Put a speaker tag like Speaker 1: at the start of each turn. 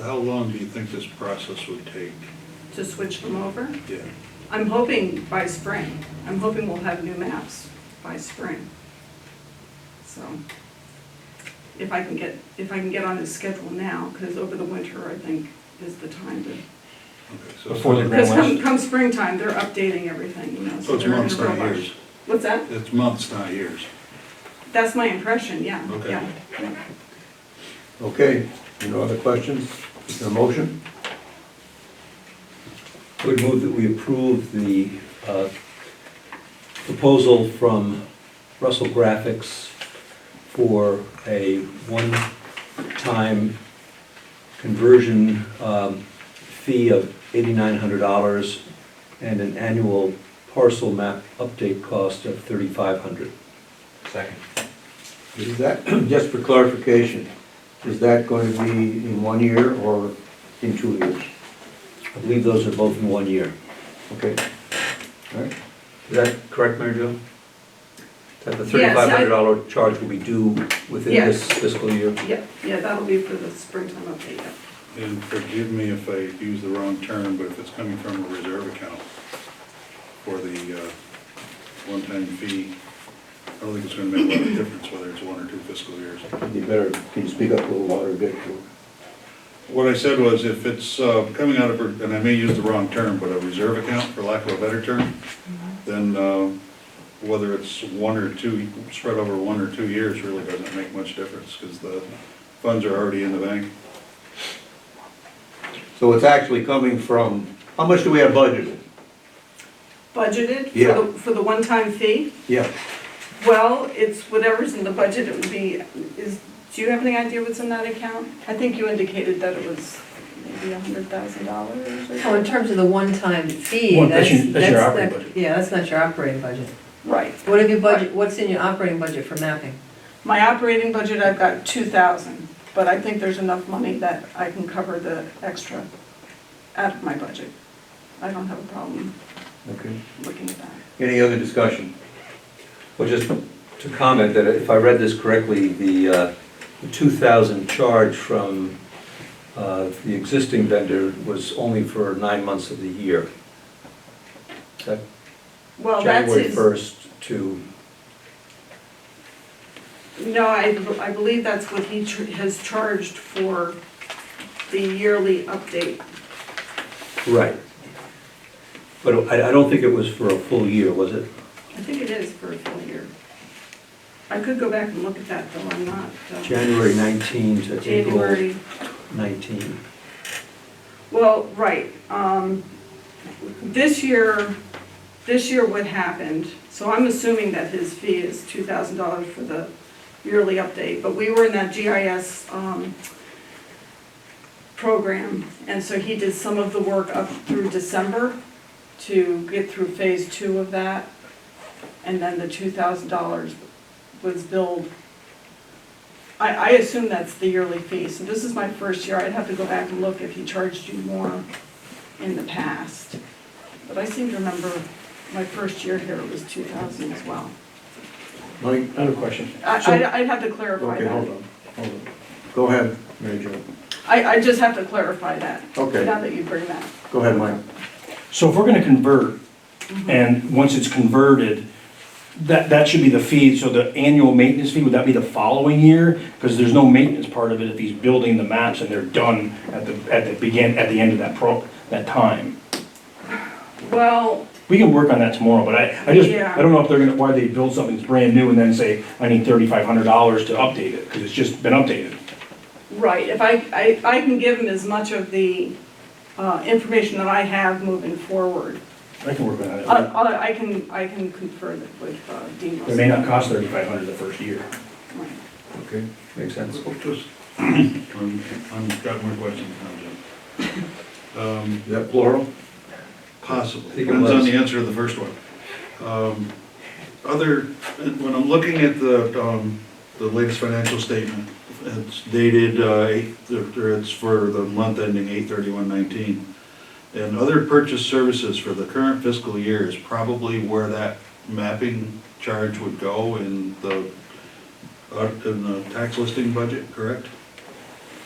Speaker 1: How long do you think this process would take?
Speaker 2: to switch them over.
Speaker 1: Yeah.
Speaker 2: I'm hoping by spring. I'm hoping we'll have new maps by spring. So if I can get, if I can get on the schedule now, because over the winter, I think, is the time to.
Speaker 1: Okay, so-
Speaker 3: Before the
Speaker 2: Because
Speaker 3: grand
Speaker 2: come,
Speaker 3: list.
Speaker 2: come springtime, they're updating everything, you know,
Speaker 1: So
Speaker 2: so
Speaker 1: Oh, it's
Speaker 2: they're in
Speaker 1: months,
Speaker 2: a real
Speaker 1: not
Speaker 2: rush.
Speaker 1: years.
Speaker 2: What's that?
Speaker 1: It's months, not years.
Speaker 2: That's my impression, yeah,
Speaker 1: Okay.
Speaker 2: yeah. yeah.
Speaker 4: Okay, no other questions? Is there a motion?
Speaker 5: I would move that we approve the uh, proposal from Russell Graphics for a one-time conversion um, fee of $8,900 and an annual parcel map update cost of $3,500.
Speaker 3: Second.
Speaker 4: Is that, just for clarification, is that going to be in one year or in two years?
Speaker 5: I believe those are both in one year.
Speaker 4: Okay? All right,
Speaker 5: Is that correct, Mary Jo? That the
Speaker 2: Yes, I-
Speaker 5: $3,500 charge will be due within this
Speaker 2: Yes.
Speaker 5: fiscal year?
Speaker 2: Yeah, yeah, that'll be for the springtime update, yeah.
Speaker 1: And forgive me if I use the wrong term, but if it's coming from a reserve account for the uh, one-time fee, I don't think it's gonna make a lot of difference whether it's one or two fiscal years.
Speaker 4: you better, can you speak up a little louder, a bit?
Speaker 1: What I said was if it's uh, coming out of, and I may use the wrong term, but a reserve account, for lack of a better term, then uh, whether it's one or two, spread over one or two years really doesn't make much difference because the funds are already in the bank.
Speaker 4: So it's actually coming from, how much do we have budgeted?
Speaker 2: Budgeted
Speaker 4: Yeah.
Speaker 2: for the, for the one-time fee?
Speaker 4: Yeah.
Speaker 2: Well, it's whatever's in the budget, it would be, is, do you have any idea what's in that account? I think you indicated that it was maybe a hundred thousand dollars or
Speaker 6: Oh, in
Speaker 2: something.
Speaker 6: terms of the one-time fee,
Speaker 3: Well,
Speaker 6: that's,
Speaker 3: that's your- that's your
Speaker 6: that's
Speaker 3: operating
Speaker 6: not-
Speaker 3: budget.
Speaker 6: Yeah, that's not your operating budget.
Speaker 2: Right.
Speaker 6: What have you budget, what's in your operating budget for mapping?
Speaker 2: My operating budget, I've got two thousand, but I think there's enough money that I can cover the extra out of my budget. I don't have a problem
Speaker 4: Okay.
Speaker 2: looking at that.
Speaker 4: Any other discussion?
Speaker 5: Well, just to comment that if I read this correctly, the uh, the 2,000 charge from uh, the existing vendor was only for nine months of the year. Is that
Speaker 2: Well, that's
Speaker 5: January
Speaker 2: his,
Speaker 5: 1st to,
Speaker 2: no, I, I believe that's what he ch- has charged for the yearly update.
Speaker 5: right. But I I don't think it was for a full year, was it?
Speaker 2: I think it is for a full year. I could go back and look at that, though I'm not. uh,
Speaker 5: January 19 to April
Speaker 2: January,
Speaker 5: 19.
Speaker 2: well, right. um, This year, this year what happened, so I'm assuming that his fee is $2,000 for the yearly update, but we were in that GIS um, program, and so he did some of the work up through December to get through phase two of that, and then the $2,000 was billed I, I assume that's the yearly fee, so this is my first year, I'd have to go back and look if he charged you more in the past. But I seem to remember my first year here, it was two thousand as well.
Speaker 4: Mike?
Speaker 3: Another question.
Speaker 2: I,
Speaker 4: So-
Speaker 2: I'd- I'd have to clarify
Speaker 4: Okay, hold
Speaker 2: that.
Speaker 4: on, hold on. Go ahead, Mary Jo.
Speaker 2: I, I just have to clarify that.
Speaker 4: Okay.
Speaker 2: Now that you bring that.
Speaker 4: Go ahead, Mike.
Speaker 3: So if we're gonna convert, and once it's converted, that, that should be the fee, so the annual maintenance fee, would that be the following year? Because there's no maintenance part of it if he's building the maps and they're done at the, at the begin, at the end of that pro, that time.
Speaker 2: Well,
Speaker 3: We can work on that tomorrow, but I, I just,
Speaker 2: Yeah.
Speaker 3: I don't know if they're gonna, why they build something that's brand new and then say, I need thirty-five hundred dollars to update it, because it's just been updated.
Speaker 2: right, if I, I, I can give him as much of the, uh, information that I have moving forward.
Speaker 3: I can work on
Speaker 2: I,
Speaker 3: that.
Speaker 2: I I can, I can confer that with uh, Dean
Speaker 3: It may not cost thirty-five hundred the first year.
Speaker 2: Right.
Speaker 4: Okay.
Speaker 5: Makes sense.
Speaker 1: Just, I'm, I've got more questions now, Jim. Um,
Speaker 4: Is that plural?
Speaker 1: Possible,
Speaker 5: I think it
Speaker 1: depends on
Speaker 5: was.
Speaker 1: the answer to the first one. Um, Other, when I'm looking at the, um, the latest financial statement, it's dated, uh, eight- or it's for the month ending eight thirty-one nineteen. And other purchase services for the current fiscal year is probably where that mapping charge would go in the, uh, in the tax listing budget, correct?